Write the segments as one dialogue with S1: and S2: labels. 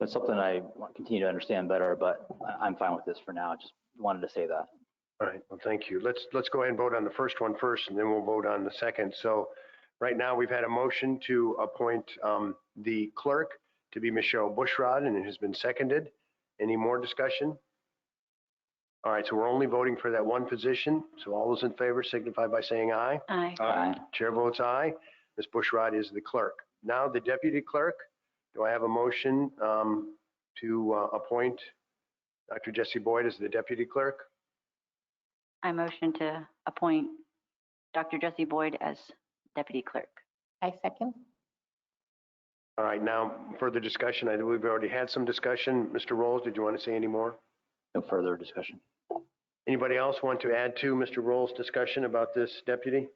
S1: That's something I want to continue to understand better, but I- I'm fine with this for now. I Just wanted to say that.
S2: All right, well, thank you. Let's, let's go ahead and vote on the first one first, and then we'll vote on the second. So right now, we've had a motion to appoint um, the clerk to be Michelle Bushrod, and it has been seconded. Any more discussion? All right, so we're only voting for that one position, so all those in favor signify by saying aye.
S3: Aye.
S1: Aye.
S2: Chair votes aye. Ms. Bushrod is the clerk. Now the deputy clerk, do I have a motion um, to uh, appoint Dr. Jesse Boyd as the deputy clerk?
S3: I motion to appoint Dr. Jesse Boyd as deputy clerk.
S4: I second.
S2: All right, now further discussion. I think we've already had some discussion. Mr. Rolls, did you want to say any more?
S1: No further discussion.
S2: Anybody else want to add to Mr. Rolls' discussion about this deputy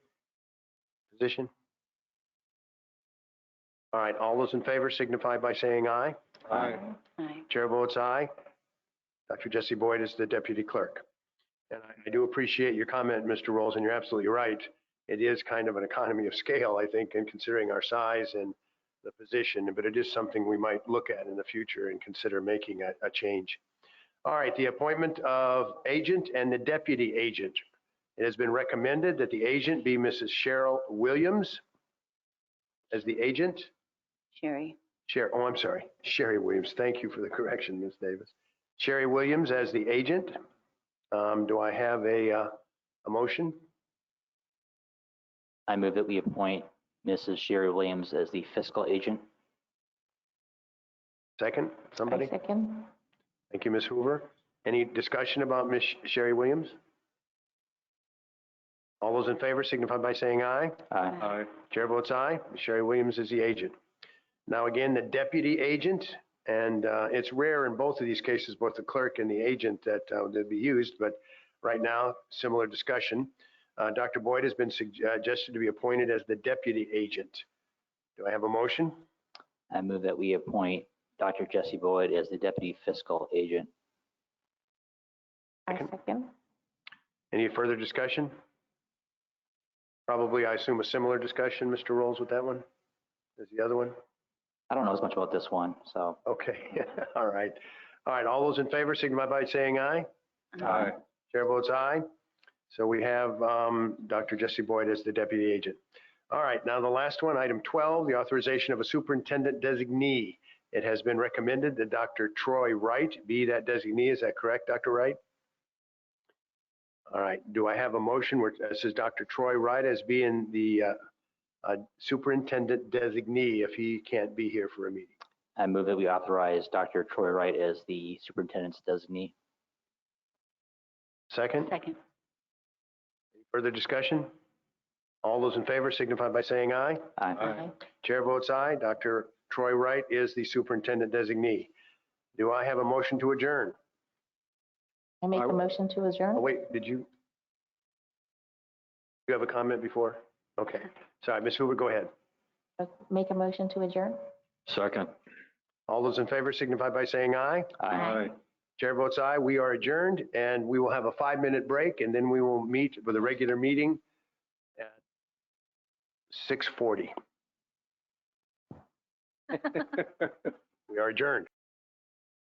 S2: position? All right, all those in favor signify by saying aye.
S1: Aye.
S3: Aye.
S2: Chair votes aye. Dr. Jesse Boyd is the deputy clerk. And I- I do appreciate your comment, Mr. Rolls, and you're absolutely right. It is kind of an economy of scale, I think, in considering our size and the position, but it is something we might look at in the future and consider making a, a change. All right, the appointment of agent and the deputy agent. It has been recommended that the agent be Mrs. Cheryl Williams as the agent.
S3: Sherry.
S2: Sherry, oh, I'm sorry, Sherry Williams. Thank you for the correction, Ms. Davis. Sherry Williams as the agent. Um, Do I have a, uh, a motion?
S1: I move that we appoint Mrs. Sherry Williams as the fiscal agent.
S2: Second,
S4: I
S2: somebody?
S4: second.
S2: Thank you, Ms. Hoover. Any discussion about Ms. Sherry Williams? All those in favor signify by saying aye.
S4: Uh,
S1: Aye.
S3: uh,
S2: Uh, Chair votes aye. Sherry Williams is the agent. Now again, the deputy agent, and uh, it's rare in both of these cases, both the clerk and the agent that uh, they'd be used, but right now, similar discussion. Uh, Dr. Boyd has been uh, suggested to be appointed as the deputy agent. Do I have a motion?
S1: I move that we appoint Dr. Jesse Boyd as the deputy fiscal agent.
S4: I second.
S2: Any further discussion? Probably, I assume, a similar discussion, Mr. Rolls, with that one? Is the other one?
S1: I don't know as much about this one, so.
S2: Okay, all right. All right, all those in favor signify by saying aye.
S1: Aye.
S2: Chair votes aye. So we have um, Dr. Jesse Boyd as the deputy agent. All right, now the last one, item 12, the authorization of a superintendent designee. It has been recommended that Dr. Troy Wright be that designee. Is that correct, Dr. Wright? All right, do I have a motion where it says Dr. Troy Wright as being the uh, uh, superintendent designee if he can't be here for a meeting?
S1: I move that we authorize Dr. Troy Wright as the superintendent's designee.
S2: Second?
S3: Second.
S2: Further discussion? All those in favor signify by saying aye.
S1: Aye.
S4: Aye.
S2: Chair votes aye. Dr. Troy Wright is the superintendent designee. Do I have a motion to adjourn?
S4: I make a motion to adjourn.
S2: Oh, wait, did you? You have a comment before? Okay, sorry, Ms. Hoover, go ahead.
S4: Uh, Make a motion to adjourn.
S1: Second.
S2: All those in favor signify by saying aye.
S1: Aye.
S2: Chair votes aye. We are adjourned and we will have a five-minute break and then we will meet with a regular meeting at 6:40. We are adjourned.